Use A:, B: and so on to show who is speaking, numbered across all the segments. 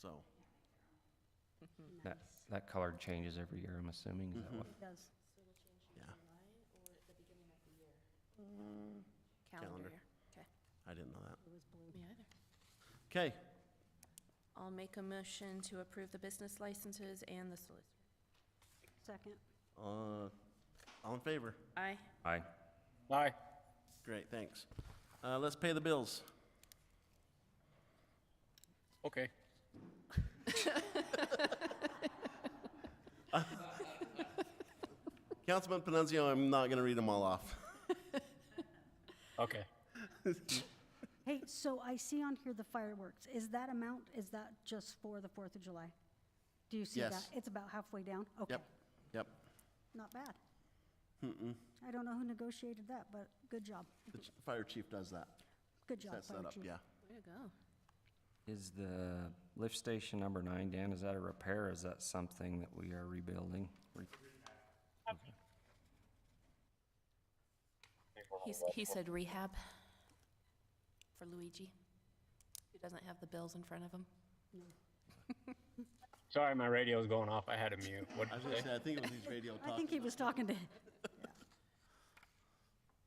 A: So,
B: That, that color changes every year, I'm assuming, is that what?
C: It does.
A: yeah, Calendar.
D: Calendar year. Okay.
A: I didn't know that.
C: It was blue.
D: Me either.
A: Okay,
D: I'll make a motion to approve the business licenses and the solicitor.
C: Second.
A: uh, all in favor?
D: Aye.
B: Aye.
E: Aye.
A: Great, thanks. Uh, let's pay the bills.
E: Okay.
A: Councilman Panunzio, I'm not gonna read them all off.
E: Okay.
C: Hey, so I see on here the fireworks. Is that amount, is that just for the Fourth of July? Do you see that?
A: Yes.
C: It's about halfway down? Okay.
A: Yep, yep.
C: Not bad. I don't know who negotiated that, but good job.
A: The ch- fire chief does that.
C: Good job,
A: Sets that
C: Fire
A: up,
C: Chief.
A: yeah.
D: Way to go.
B: Is the lift station number nine, Dan, is that a repair or is that something that we are rebuilding? Re-
D: He's, he said rehab for Luigi, who doesn't have the bills in front of him.
E: Sorry, my radio's going off. I had a mute. What
A: I was
E: did you
A: gonna
E: say?
A: say, I think it was these radio
C: I think
A: talking.
C: he was talking to,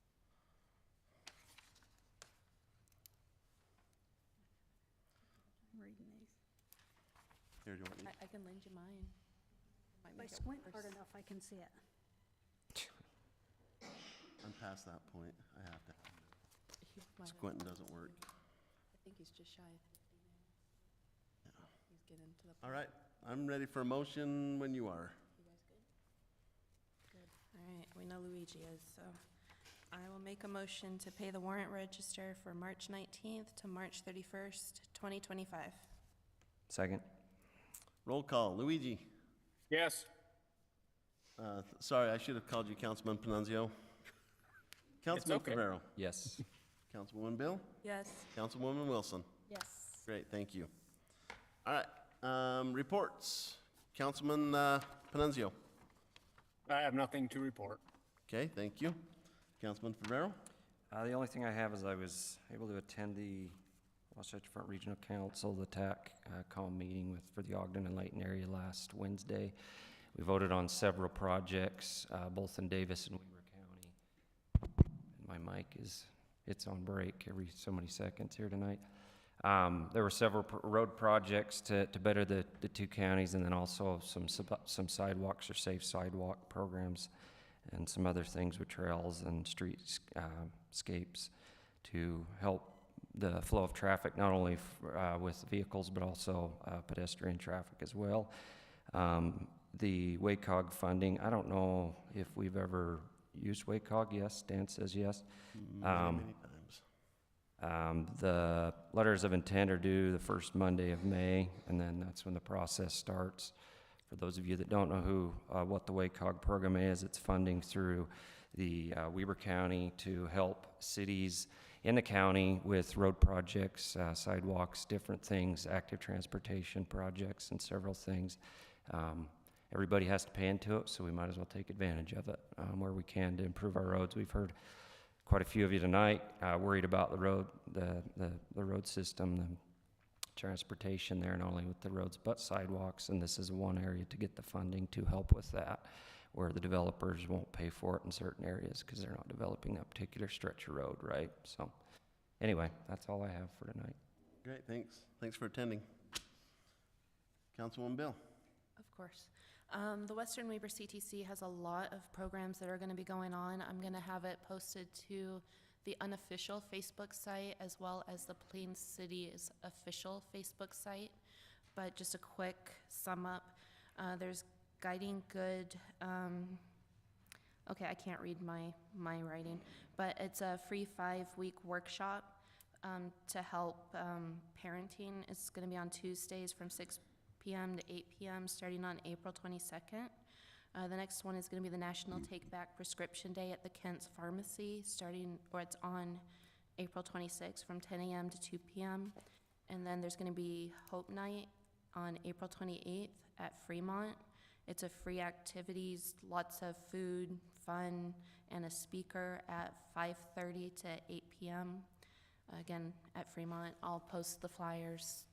C: reading these.
A: Here, do you want me-
D: I, I can lend you mine.
C: If
D: Might
C: I
D: make it
C: squint
D: worse.
C: hard enough, I can see it.
A: I'm past that point. I have to.
D: He might have-
A: Squinting doesn't work.
D: I think he's just shy of fifty now. He's getting to the point.
A: All right, I'm ready for a motion when you are.
D: All right, we know Luigi is, so I will make a motion to pay the warrant register for March nineteenth to March thirty-first, twenty twenty-five.
B: Second?
A: Roll call, Luigi.
E: Yes.
A: Uh, th- Sorry, I should have called you Councilman Panunzio. Councilman
E: okay.
A: Favero.
B: Yes.
A: Councilwoman Bill.
D: Yes.
A: Councilwoman Wilson.
C: Yes.
A: Great, thank you. All right, um, reports. Councilman uh, Panunzio.
E: I have nothing to report.
A: Okay, thank you. Councilman Favero.
B: Uh, the only thing I have is I was able to attend the Wasatch Front Regional Council, the TAC, uh, calm meeting with, for the Ogden and Layton area last Wednesday. We voted on several projects, uh, both in Davis and Weaver County. My mic is, it's on break every so many seconds here tonight. Um, there were several pr- road projects to, to better the, the two counties and then also some, sub- some sidewalks or safe sidewalk programs and some other things with trails and streetscapes to help the flow of traffic, not only f- uh, with vehicles, but also uh, pedestrian traffic as well. Um, The WACOG funding, I don't know if we've ever used WACOG, yes, Dan says yes. Um,
A: Many times.
B: um, The letters of intent are due the first Monday of May, and then that's when the process starts. For those of you that don't know who, uh, what the WACOG program is, it's funding through the uh, Weber County to help cities in the county with road projects, uh, sidewalks, different things, active transportation projects, and several things. Um, Everybody has to pay into it, so we might as well take advantage of it um, where we can to improve our roads. We've heard quite a few of you tonight uh, worried about the road, the, the, the road system, the transportation there, not only with the roads but sidewalks. And this is one area to get the funding to help with that, where the developers won't pay for it in certain areas because they're not developing that particular stretch of road, right? So, anyway, that's all I have for tonight.
A: Great, thanks. Thanks for attending. Councilwoman Bill.
D: Of course. Um, the Western Weber CTC has a lot of programs that are gonna be going on. I'm gonna have it posted to the unofficial Facebook site as well as the Plain City's official Facebook site. But just a quick sum up, uh, there's Guiding Good, um, okay, I can't read my, my writing, but it's a free five-week workshop um, to help um, parenting. It's going to be on Tuesdays from 6 p.m. to 8 p.m., starting on April 22nd. Uh, the next one is going to be the National Take Back Prescription Day at the Kent's Pharmacy, starting, or it's on April 26th from 10 a.m. to 2 p.m. And then there's going to be Hope Night on April 28th at Fremont. It's a free activities, lots of food, fun, and a speaker at 5:30 to 8 p.m. Again, at Fremont. I'll post the flyers